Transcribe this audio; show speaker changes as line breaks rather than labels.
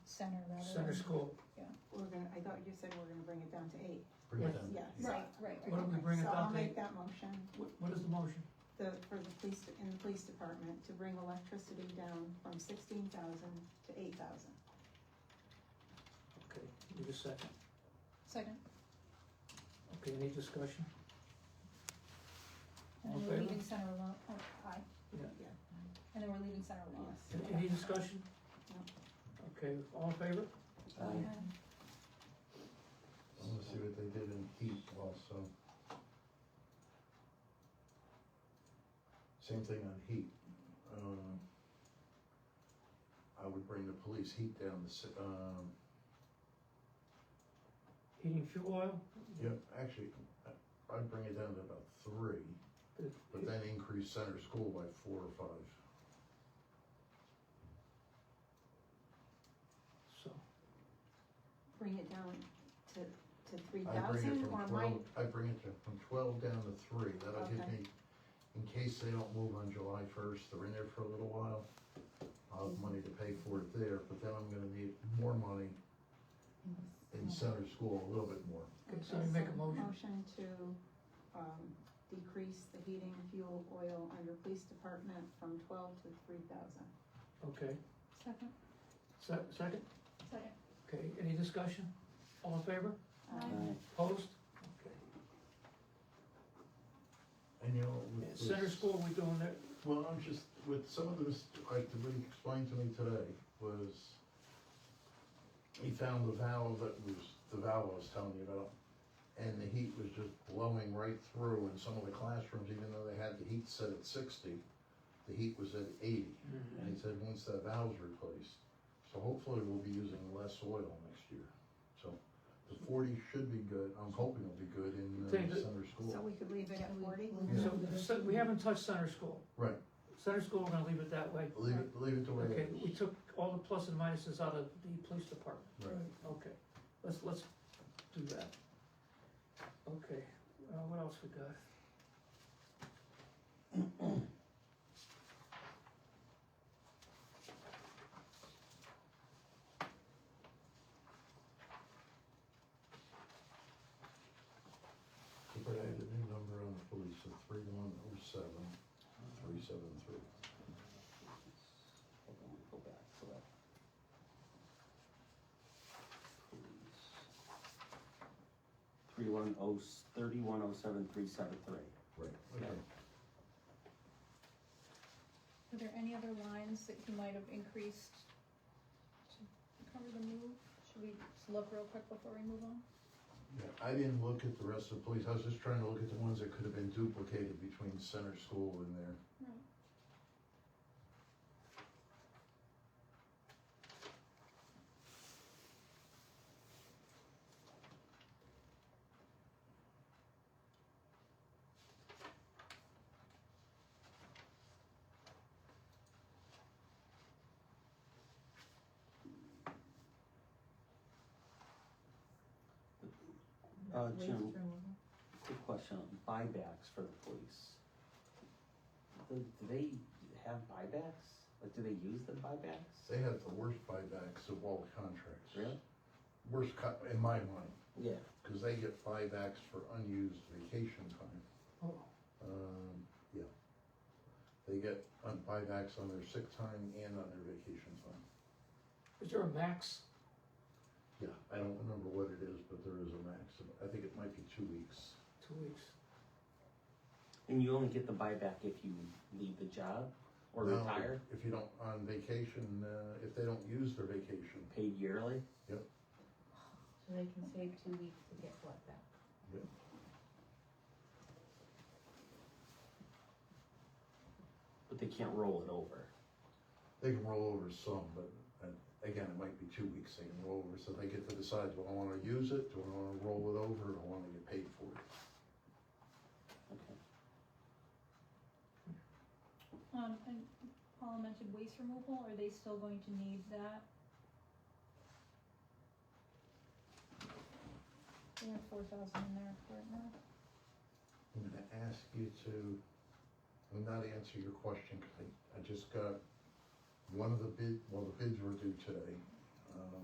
center rather than.
Center school,
We're gonna, I thought you said we're gonna bring it down to eight,
bring it
Yes.
down.
yes.
Right, right,
why
right.
don't we bring it
So I'll
down to,
make that motion,
what- what is the motion?
the, for the police, in the police department, to bring electricity down from sixteen thousand to eight thousand.
Okay, give a second.
Second.
Okay, any discussion?
And
All in
then we're
favor?
leaving center alone, oh, aye.
Yeah.
Yeah.
And then we're leaving center alone.
A- Any discussion? Okay, all in favor?
Aye.
Uh,
I wanna see what they did in heat also. Same thing on heat. Um, I would bring the police heat down to, si- um,
Heating fuel oil?
yeah, actually, I- I'd bring it down to about three,
Good.
but then increase center school by four or five.
So,
Bring it down to, to three
I bring it
thousand
from
or might,
twelve, I bring it to, from twelve down to three, that'll give
Okay.
me, in case they don't move on July first, they're in there for a little while. I'll have money to pay for it there, but then I'm gonna need more money in center school, a little bit more.
Could
Okay,
somebody make a
so
motion?
Motion to, um, decrease the heating, fuel, oil under police department from twelve to three thousand.
okay,
Second,
Se- second,
second.
okay, any discussion? All in favor?
Um,
Aye.
Opposed? Okay.
And you know, with.
And
the-
Center school, we doing that,
Well, I'm just, with some of this, like, the way he explained to me today was, he found the valve that was, the valve I was telling you about, and the heat was just blowing right through in some of the classrooms, even though they had the heat set at sixty, the heat was at eighty, and he said, once that valve's replaced, so hopefully we'll be using less oil next year, so the forty should be good, I'm hoping it'll be good in
Take
uh,
it.
center
So
school.
we could leave it at forty?
Yeah.
so, so we haven't touched center school.
Right.
Center school, we're gonna leave it that way.
Leave it, leave it the way
Okay,
it
we
is.
took all the plus and minuses out of the police department.
Right.
Okay, let's, let's do that. Okay, uh, what else we got?
But I had a new number on the police, so three one oh seven, three seven three.
Hold on, go back to that. Please. Three one oh, thirty-one oh seven, three seven three.
Right.
Okay.
Were there any other lines that you might have increased to cover the move? Should we just look real quick before we move on?
Yeah, I didn't look at the rest of the police, I was just trying to look at the ones that could have been duplicated between center school and there.
Uh, Jim, quick question, on buybacks for the police. Do do they have buybacks? Like, do they use the buybacks?
They had the worst buybacks of all contracts.
Really?
Worst cut, in my mind,
Yeah.
because they get buybacks for unused vacation time.
Oh,
Um, yeah. They get uh, buybacks on their sick time and on their vacation time.
Is there a max?
Yeah, I don't remember what it is, but there is a maximum, I think it might be two weeks.
Two weeks.
And you only get the buyback if you leave the job or
No,
retire,
If you don't, on vacation, uh, if they don't use their vacation,
paid yearly?
So they can save two weeks to get what back?
But they can't roll it over.
they can roll over some, but uh, again, it might be two weeks they can roll over, so they get to decide, do I wanna use it, do I wanna roll it over, do I wanna get paid for it?
Okay.
Um, and Paula mentioned waste removal, are they still going to need that? We have four thousand in there right now.
I'm gonna ask you to, I'm not answer your question, cause I, I just got one of the bid, well, the bids were due today. Um,